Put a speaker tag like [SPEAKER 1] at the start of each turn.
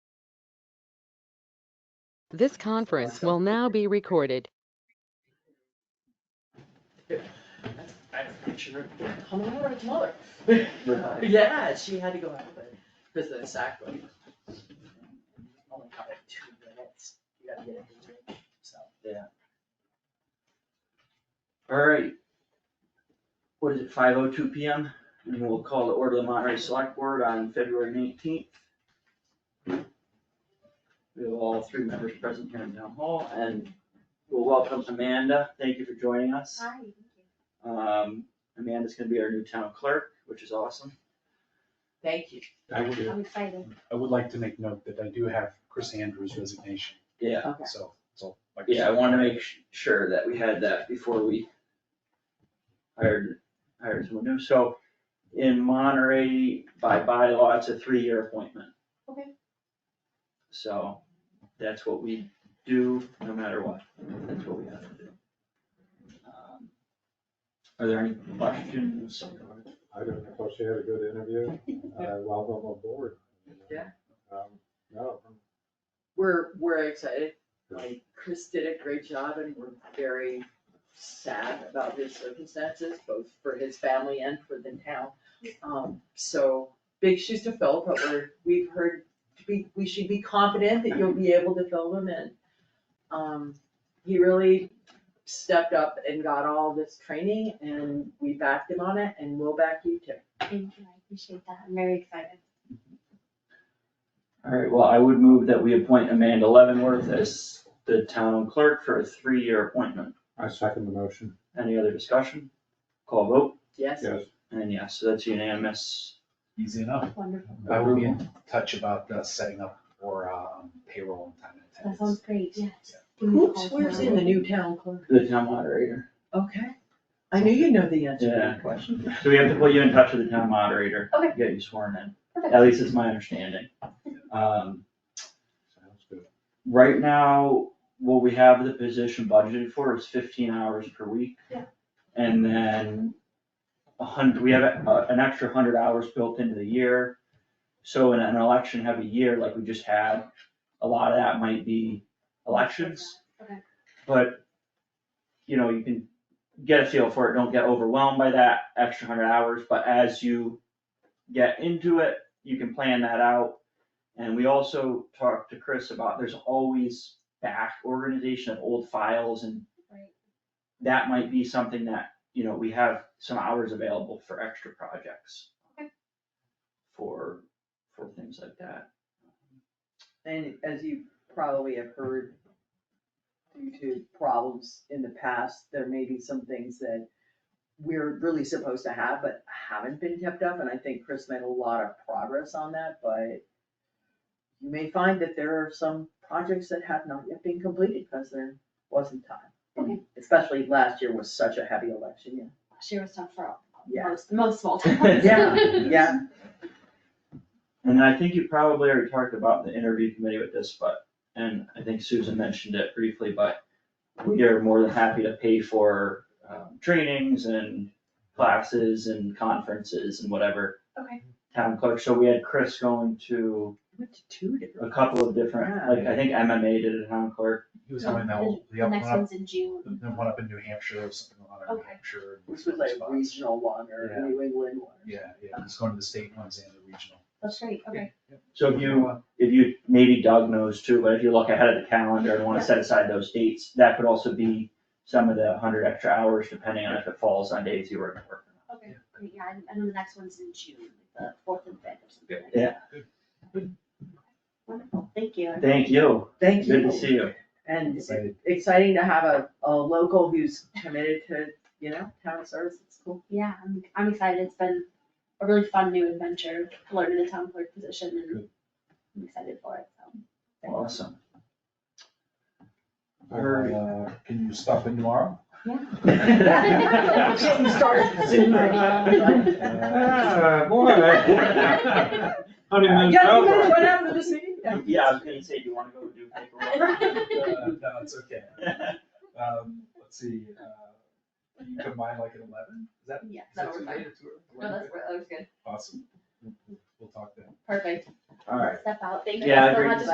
[SPEAKER 1] This conference will now be recorded.
[SPEAKER 2] I have a picture of her coming over with mother. Yeah, she had to go out with it, because the sack was. Only got like two minutes, you gotta get it, in, so.
[SPEAKER 3] Alright. What is it, five oh two P M? And we'll call the order of the Monterey Select Board on February nineteenth. We have all three members present here in town hall and we'll welcome Amanda. Thank you for joining us.
[SPEAKER 4] Hi.
[SPEAKER 3] Um, Amanda's gonna be our new town clerk, which is awesome.
[SPEAKER 2] Thank you.
[SPEAKER 5] I would,
[SPEAKER 4] I'm excited.
[SPEAKER 5] I would like to make note that I do have Chris Andrews' resignation,
[SPEAKER 3] Yeah,
[SPEAKER 2] Okay.
[SPEAKER 5] so, so. like
[SPEAKER 3] yeah, I wanna make su- sure that we had that before we hired, hired someone new. So in Monterey, by bylaw, it's a three-year appointment.
[SPEAKER 4] Okay.
[SPEAKER 3] So that's what we do, no matter what, that's what we have to do. Um, Are there any questions?
[SPEAKER 6] I don't know, she had a good interview, uh, welcome aboard.
[SPEAKER 2] Yeah.
[SPEAKER 6] Um, No,
[SPEAKER 2] We're, we're excited, like Chris did a great job and we're very sad about his circumstances, both for his family and for the town. Um, so, big shoes to fill, but we're, we've heard, we, we should be confident that you'll be able to fill them in. Um, he really stepped up and got all this training and we backed him on it and we'll back you too.
[SPEAKER 4] Thank you. I appreciate that. I'm very excited.
[SPEAKER 3] All right, well, I would move that we appoint Amanda Leavenworth as the town clerk for a three-year appointment.
[SPEAKER 6] I second the motion,
[SPEAKER 3] Any other discussion? Call vote,
[SPEAKER 2] Yes,
[SPEAKER 6] yes.
[SPEAKER 3] and yes, so that's unanimous.
[SPEAKER 5] Easy enough.
[SPEAKER 4] Wonderful.
[SPEAKER 5] I will be in touch about uh, setting up for um, payroll and time and
[SPEAKER 4] That
[SPEAKER 5] attendance.
[SPEAKER 4] sounds great. Yes. Give me a
[SPEAKER 2] who
[SPEAKER 4] call
[SPEAKER 2] swears
[SPEAKER 4] tomorrow.
[SPEAKER 2] in the new town clerk?
[SPEAKER 3] The town moderator.
[SPEAKER 2] Okay, I knew you know the answer to
[SPEAKER 3] Yeah.
[SPEAKER 2] that question.
[SPEAKER 3] So we have to put you in touch with the town moderator.
[SPEAKER 4] Okay.
[SPEAKER 3] Get you sworn in,
[SPEAKER 4] Perfect.
[SPEAKER 3] at least it's my understanding. Um,
[SPEAKER 6] Sounds good.
[SPEAKER 3] right now, what we have the position budgeted for is fifteen hours per week.
[SPEAKER 4] Yeah.
[SPEAKER 3] And then a hundred, we have a- an extra hundred hours built into the year. So in an election heavy year like we just had, a lot of that might be elections.
[SPEAKER 4] Okay.
[SPEAKER 3] But, you know, you can get a feel for it, don't get overwhelmed by that extra hundred hours, but as you get into it, you can plan that out. And we also talked to Chris about, there's always back organization of old files and
[SPEAKER 4] Right.
[SPEAKER 3] that might be something that, you know, we have some hours available for extra projects.
[SPEAKER 4] Okay.
[SPEAKER 3] For, for things like that.
[SPEAKER 2] And as you probably have heard, due to problems in the past, there may be some things that we're really supposed to have, but haven't been kept up, and I think Chris made a lot of progress on that, but you may find that there are some projects that have not yet been completed, because there wasn't time.
[SPEAKER 4] Okay.
[SPEAKER 2] Especially last year was such a heavy election year.
[SPEAKER 4] Last year was tough for all-
[SPEAKER 2] Yeah.
[SPEAKER 4] most, most small towns.
[SPEAKER 2] Yeah, yeah.
[SPEAKER 3] And I think you probably already talked about the interview committee with this, but, and I think Susan mentioned it briefly, but we are more than happy to pay for, um, trainings and classes and conferences and whatever.
[SPEAKER 4] Okay.
[SPEAKER 3] Town clerk, so we had Chris going to
[SPEAKER 2] Went to two different.
[SPEAKER 3] a couple of different, like, I think MMA did a town clerk.
[SPEAKER 5] He was having that, whole- the
[SPEAKER 4] The
[SPEAKER 5] up-
[SPEAKER 4] next
[SPEAKER 5] one up,
[SPEAKER 4] one's in June.
[SPEAKER 5] the one up in New Hampshire or something, one up in New
[SPEAKER 4] Okay.
[SPEAKER 5] Hampshire. and
[SPEAKER 2] Which was like
[SPEAKER 5] spots.
[SPEAKER 2] regional one or
[SPEAKER 5] Yeah.
[SPEAKER 2] New England one.
[SPEAKER 5] Yeah, yeah, he's going to the state ones and the regional.
[SPEAKER 4] That's great. Okay.
[SPEAKER 3] So if you, if you, maybe Doug knows too, but if you look ahead at the calendar and wanna set aside those dates, that could also be some of the hundred extra hours, depending on if it falls on days you were at work.
[SPEAKER 4] Okay. Great. Yeah. And, and then the next one's in June, the fourth and fifth or something like that.
[SPEAKER 3] Yeah.
[SPEAKER 4] Wonderful. Thank you.
[SPEAKER 3] Thank you,
[SPEAKER 2] Thank you.
[SPEAKER 3] good to see you.
[SPEAKER 2] And
[SPEAKER 5] Excited.
[SPEAKER 2] exciting to have a, a local who's committed to, you know, town service, it's cool.
[SPEAKER 4] Yeah, I'm, I'm excited. It's been a really fun new adventure, learning the town clerk position and
[SPEAKER 5] Good.
[SPEAKER 4] I'm excited for it, so.
[SPEAKER 3] Awesome.
[SPEAKER 5] Or, uh, Can you stop in tomorrow?
[SPEAKER 2] Getting started soon.
[SPEAKER 6] Ah, boy. I didn't
[SPEAKER 2] Yeah,
[SPEAKER 6] know
[SPEAKER 2] you guys
[SPEAKER 6] that was-
[SPEAKER 2] went out to this meeting?
[SPEAKER 3] Yeah, I was gonna say, do you wanna go do paperwork?
[SPEAKER 5] Uh, No, it's okay. Um, Let's see, uh, you combine like an eleven, is that?
[SPEAKER 4] Yeah,
[SPEAKER 5] is
[SPEAKER 4] that'll
[SPEAKER 5] that
[SPEAKER 4] work. fine.
[SPEAKER 5] too late or too early?
[SPEAKER 4] No, that's, that was good.
[SPEAKER 5] Awesome. We'll talk then.
[SPEAKER 4] Perfect.
[SPEAKER 3] Alright,
[SPEAKER 4] Step out. Thank you
[SPEAKER 3] Yeah,
[SPEAKER 4] guys so
[SPEAKER 3] great
[SPEAKER 4] much.
[SPEAKER 3] to